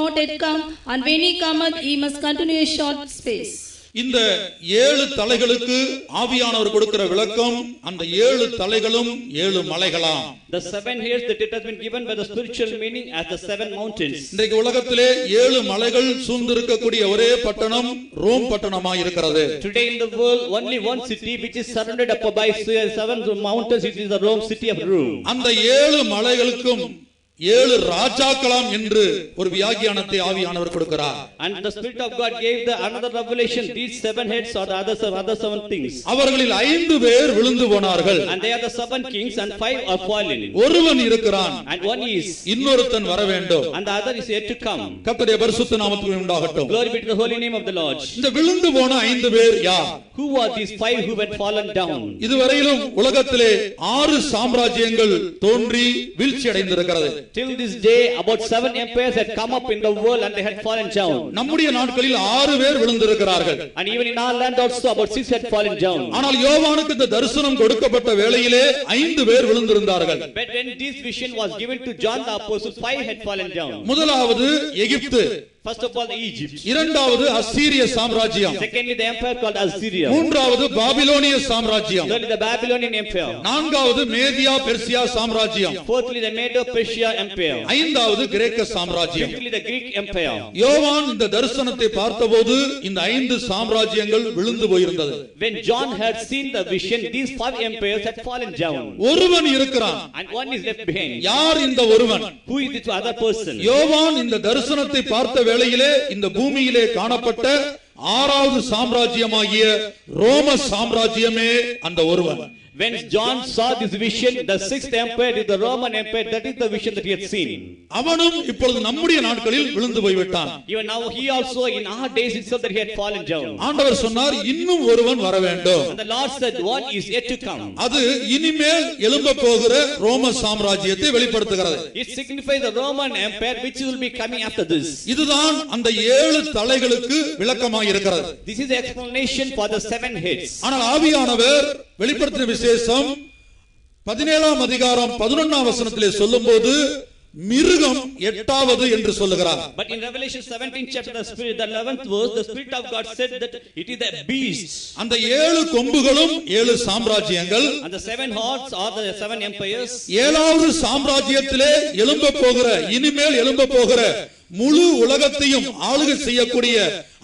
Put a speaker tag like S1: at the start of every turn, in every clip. S1: not yet come, and when he cometh, he must continue a short space.
S2: இந்த ஏழு தலைகளுக்கு ஆவியானவர் கொடுக்கிற விளக்கம் அந்த ஏழு தலைகளும் ஏழு மலைகளாம்
S3: The seven heads that it has been given by the spiritual meaning as the seven mountains.
S2: இன்றைக்கு உலகத்திலே ஏழு மலைகள் சூழ்ந்திருக்கக்கூடிய ஒரே பட்டணம் ரோம் பட்டணமாய் இருக்கிறது
S3: Today in the world, only one city which is surrounded up by seven mountains, it is the Rome city of Rome.
S2: அந்த ஏழு மலைகளுக்கும் ஏழு ராஜாக்களாம் என்று ஒரு வியாக்கியானத்தை ஆவியானவர் கொடுக்கிறார்
S3: And the Spirit of God gave the another revelation, these seven heads are the other, se- other seven things.
S2: அவர்களில் ஐந்து பேர் விழுந்து போனார்கள்
S3: And they are the seven kings and five are fallen.
S2: ஒருவன் இருக்கிறான்
S3: And one is,
S2: இன்னொருத்தன் வர வேண்டும்
S3: and the other is yet to come.
S2: கர்த்தருடைய பரிசுத்த நாமத்துக்கு உண்டாகட்டும்
S3: Glory be to the holy name of the Lord.
S2: இந்த விழுந்து போன ஐந்து பேர் யார்
S3: Who are these five who had fallen down?
S2: இதுவரையிலும் உலகத்திலே ஆறு சாம்ராஜ்யங்கள் தோன்றி வீழ்ச்சி அடைந்திருக்கிறது
S3: Till this day, about seven empires had come up in the world and they had fallen down.
S2: நம்முடைய நாட்களில் ஆறு பேர் விழுந்திருக்கிறார்கள்
S3: And even in our land also, about six had fallen down.
S2: ஆனால் யோவானுக்கு இந்த தரிசனம் கொடுக்கப்பட்ட வேளையிலே ஐந்து பேர் விழுந்திருந்தார்கள்
S3: But when this vision was given to John the Apostle, five had fallen down.
S2: முதலாவது எகிப்து
S3: First of all, Egypt.
S2: இரண்டாவது அசீரிய சாம்ராஜ்யம்
S3: Secondly, the empire called Assyria.
S2: மூன்றாவது பாபிலோனிய சாம்ராஜ்யம்
S3: Thirdly, the Babylonian empire.
S2: நான்காவது மேதியா பெர்சியா சாம்ராஜ்யம்
S3: Fourthly, the Medo-Persia empire.
S2: ஐந்தாவது கிரேக்க சாம்ராஜ்யம்
S3: Fifthly, the Greek empire.
S2: யோவான் இந்த தரிசனத்தை பார்த்தபோது இந்த ஐந்து சாம்ராஜ்யங்கள் விழுந்து போயிருந்தது
S3: When John had seen the vision, these five empires had fallen down.
S2: ஒருவன் இருக்கிறான்
S3: And one is left behind.
S2: யார் இந்த ஒருவன்
S3: Who is this other person?
S2: யோவான் இந்த தரிசனத்தை பார்த்த வேளையிலே இந்த பூமியிலே காணப்பட்ட ஆறாவது சாம்ராஜ்யமாகிய ரோம சாம்ராஜ்யமே அந்த ஒருவன்
S3: When John saw this vision, the sixth empire is the Roman empire. That is the vision that he had seen.
S2: அவனும் இப்பொழுது நம்முடைய நாட்களில் விழுந்து போய்விட்டான்
S3: Even now, he also in our days itself that he had fallen down.
S2: ஆண்டவர் சொன்னார் இன்னும் ஒருவன் வர வேண்டும்
S3: And the Lord said, "One is yet to come."
S2: அது இனிமேல் எழும்ப போகிற ரோம சாம்ராஜ்யத்தை வெளிப்படுத்துகிறது
S3: It signifies the Roman empire which will be coming after this.
S2: இதுதான் அந்த ஏழு தலைகளுக்கு விளக்கமாக இருக்கிறது
S3: This is the explanation for the seven heads.
S2: ஆனால் ஆவியானவர் வெளிப்படுத்தின விசேஷம் பதினேழாம் அதிகாரம் பதினொன்னாம் வசனத்திலே சொல்லும்போது மிருகம் எட்டாவது என்று சொல்லுகிறார்
S3: But in Revelation 17 chapter, the spirit, the 11th verse, the spirit of God said that it is a beast.
S2: அந்த ஏழு கொம்புகளும் ஏழு சாம்ராஜ்யங்கள்
S3: And the seven hearts are the seven empires.
S2: ஏழாவது சாம்ராஜ்யத்திலே எழும்ப போகிற இனிமேல் எழும்ப போகிற முழு உலகத்தையும் ஆளுகை செய்யக்கூடிய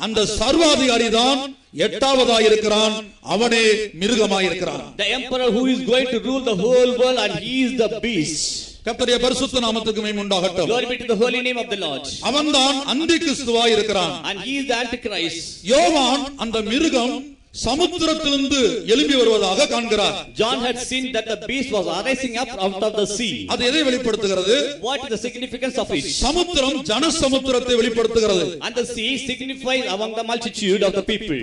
S2: அந்த சர்வாதிகாரி தான் எட்டாவதாயிருக்கிறான் அவனே மிருகமாயிருக்கிறான்
S3: The emperor who is going to rule the whole world and he is the beast.
S2: கர்த்தருடைய பரிசுத்த நாமத்துக்கு மேம் உண்டாகட்டும்
S3: Glory be to the holy name of the Lord.
S2: அவன்தான் அந்தி கிறிஸ்துவாய் இருக்கிறான்
S3: And he is the Antichrist.
S2: யோவான் அந்த மிருகம் சமுத்திரத்திலிருந்து எழும்பி வருவதாக காண்கிறார்
S3: John had seen that the beast was arising up out of the sea.
S2: அது எதை வெளிப்படுத்துகிறது
S3: What is the significance of it?
S2: சமுத்திரம் ஜன சமுத்திரத்தை வெளிப்படுத்துகிறது
S3: And the sea signifies among the multitude of the people.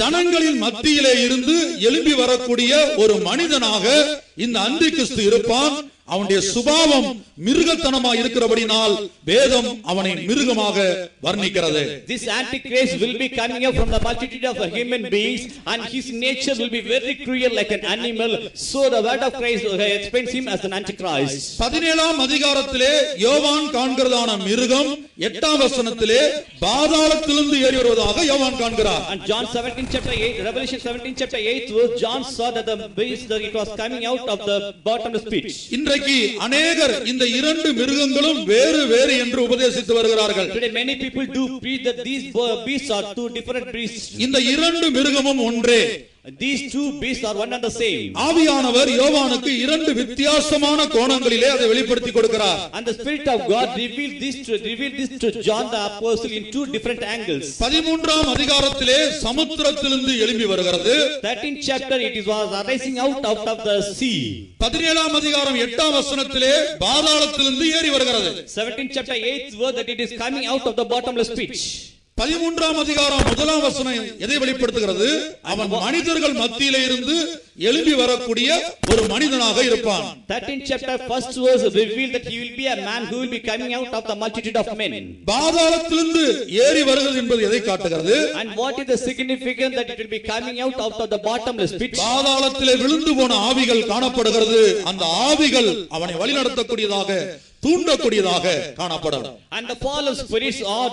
S2: ஜனங்களின் மத்தியிலே இருந்து எழும்பி வரக்கூடிய ஒரு மனிதனாக இந்த அந்தி கிறிஸ்து இருப்பான் அவனுடைய சுபாவம் மிருகத்தனமாய் இருக்கிறபடினால் வேதம் அவனை மிருகமாக வர்ணிக்கிறது
S3: This Antichrist will be coming up from the multitude of the human beings, and his nature will be very cruel like an animal. So the word of Christ uh, explains him as an Antichrist.
S2: பதினேழாம் அதிகாரத்திலே யோவான் காண்கிறதான மிருகம் எட்டாம் வசனத்திலே பாதாளத்திலிருந்து ஏறி வருவதாக யோவான் காண்கிறார்
S3: And John 17 chapter 8, Revelation 17 chapter 8 verse, John saw that the beast, that it was coming out of the bottomless pit.
S2: இன்றைக்கு அநேகர் இந்த இரண்டு மிருகங்களும் வேறு வேறு என்று உபதேசித்து வருகிறார்கள்
S3: Today many people do preach that these bo- beasts are two different beasts.
S2: இந்த இரண்டு மிருகமும் ஒன்றே
S3: These two beasts are one and the same.
S2: ஆவியானவர் யோவானுக்கு இரண்டு வித்தியாசமான கோணங்களிலே அதை வெளிப்படுத்தி கொடுக்கிறார்
S3: And the Spirit of God revealed this to, revealed this to John the Apostle in two different angles.
S2: பதிமூன்றாம் அதிகாரத்திலே சமுத்திரத்திலிருந்து எழும்பி வருகிறது
S3: 13th chapter it is was arising out, out of the sea.
S2: பதினேழாம் அதிகாரம் எட்டாம் வசனத்திலே பாதாளத்திலிருந்து ஏறி வருகிறது
S3: 17th chapter 8th verse that it is coming out of the bottomless pit.
S2: பதிமூன்றாம் அதிகாரம் முதலாம் வசனம் எதை வெளிப்படுத்துகிறது அவன் மனிதர்கள் மத்தியிலே இருந்து எழும்பி வரக்கூடிய ஒரு மனிதனாக இருப்பான்
S3: 13th chapter first verse revealed that he will be a man who will be coming out of the multitude of men.
S2: பாதாளத்திலிருந்து ஏறி வருகிறது என்பது எதை காட்டுகிறது
S3: And what is the significance that it will be coming out out of the bottomless pit?
S2: பாதாளத்திலே விழுந்து போன ஆவிகள் காணப்படுகிறது அந்த ஆவிகள் அவனை வழிநடத்தக்கூடியதாக தூண்டக்கூடியதாக காணப்படும்
S3: And the fallen spirits are